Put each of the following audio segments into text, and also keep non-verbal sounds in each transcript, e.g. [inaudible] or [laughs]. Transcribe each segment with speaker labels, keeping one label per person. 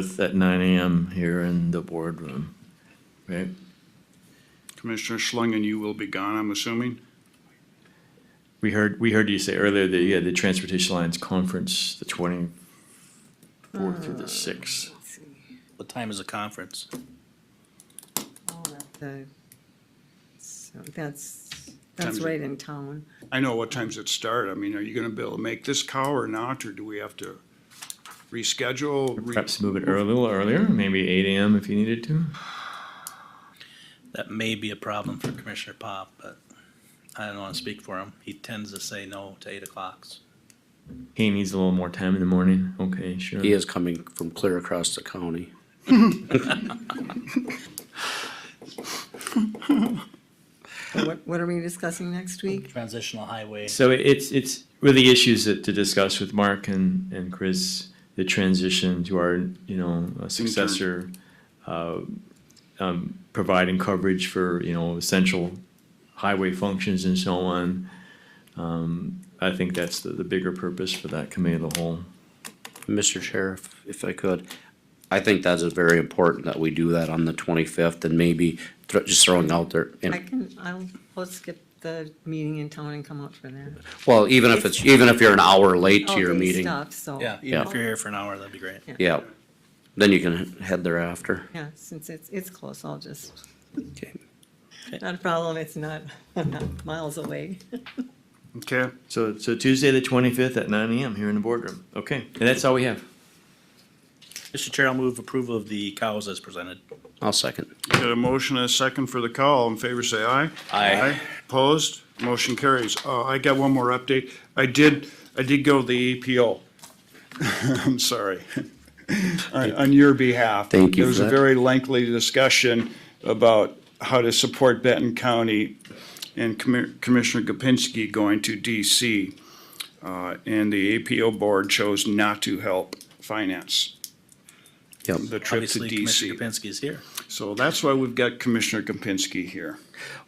Speaker 1: 5th at nine AM here in the boardroom, right?
Speaker 2: Commissioner Schlangen, you will be gone, I'm assuming?
Speaker 1: We heard, we heard you say earlier that you had the Transportation Alliance Conference, the 24th through the 6th.
Speaker 3: What time is the conference?
Speaker 4: The- So that's, that's
Speaker 2: Time's
Speaker 4: right in town.
Speaker 2: I know what times it start. I mean, are you gonna be able to make this cow or not, or do we have to reschedule? re-
Speaker 1: Perhaps move it ear- a little earlier, maybe eight AM if you needed to.
Speaker 3: That may be a problem for Commissioner Pop, but I don't wanna speak for him. He tends to say no to eight o'clocks.
Speaker 1: He needs a little more time in the morning. Okay, sure.
Speaker 5: He is coming from clear across the county.
Speaker 4: What, what are we discussing next week?
Speaker 3: Transitional highway.
Speaker 1: So it's, it's really issues that to discuss with Mark and, and Chris, the transition to our, you know, a successor, uh, um, providing coverage for, you know, essential highway functions and so on. Um, I think that's the, the bigger purpose for that committee of the whole.
Speaker 5: Mr. Sheriff, if I could, I think that is very important that we do that on the twenty-fifth and maybe thro- just throwing out there. and-
Speaker 4: I can, I'll, let's skip the meeting in town and come out for that.
Speaker 5: Well, even if it's, even if you're an hour late to your
Speaker 4: All day
Speaker 5: meeting,
Speaker 4: stuff, so.
Speaker 3: Yeah, even
Speaker 5: Yeah.
Speaker 3: if you're here for an hour, that'd be great.
Speaker 4: Oh, Yeah.
Speaker 5: yeah, then you can head thereafter.
Speaker 4: Yeah, since it's, it's close, I'll just,
Speaker 5: Okay.
Speaker 4: not a problem, it's not, [laughs] I'm not miles away.
Speaker 2: Okay,
Speaker 1: So, so Tuesday, the twenty-fifth at nine AM here in the boardroom. Okay, and that's all we have.
Speaker 3: Mr. Chair, I'll move approval of the cows as presented.
Speaker 5: I'll second.
Speaker 2: got a motion and a second for the call. All in favor, say aye.
Speaker 3: Aye.
Speaker 2: Opposed? Motion carries. Uh, I got one more update. I did, I did go to the EPO. [laughs] I'm sorry. [laughs] On, on your behalf.
Speaker 5: Thank you
Speaker 2: There was
Speaker 5: for
Speaker 2: a
Speaker 5: that.
Speaker 2: very lengthy discussion about how to support Benton County and Commi- Commissioner Gopinski going to DC. Uh, and the APO board chose not to help finance
Speaker 5: Yep.
Speaker 2: the trip to
Speaker 3: Obviously, Commissioner
Speaker 2: DC.
Speaker 3: Kapinski is here.
Speaker 2: So that's why we've got Commissioner Gopinski here.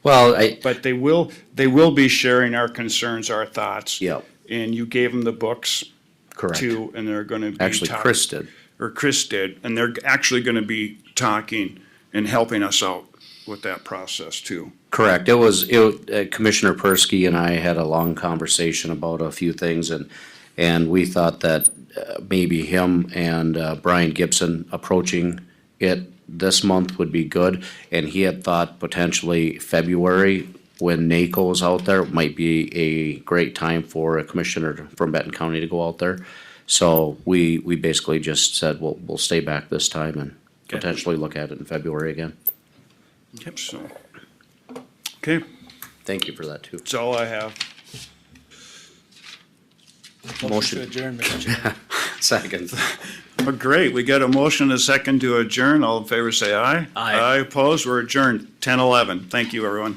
Speaker 5: Well, I,
Speaker 2: But they will, they will be sharing our concerns, our thoughts.
Speaker 5: Yep.
Speaker 2: And you gave them the books
Speaker 5: correct.
Speaker 2: too, and they're gonna be.
Speaker 5: Actually,
Speaker 2: talk-
Speaker 5: Chris did.
Speaker 2: Or Chris did, and they're actually gonna be talking and helping us out with that process too.
Speaker 5: Correct. It was, it, uh, Commissioner Persky and I had a long conversation about a few things and, and we thought that uh, maybe him and uh, Brian Gibson approaching it this month would be good. And he had thought potentially February, when NACO is out there, might be a great time for a commissioner from Benton County to go out there. So we, we basically just said, we'll, we'll stay back this time and potentially look at it in February again.
Speaker 2: So. Okay,
Speaker 5: Thank you for that too.
Speaker 2: that's all I have.
Speaker 5: Motion. Second.
Speaker 2: Oh, great, we got a motion, and a second to adjourn. All in favor, say aye.
Speaker 3: Aye.
Speaker 2: Aye, opposed, we're adjourned, ten eleven. Thank you, everyone.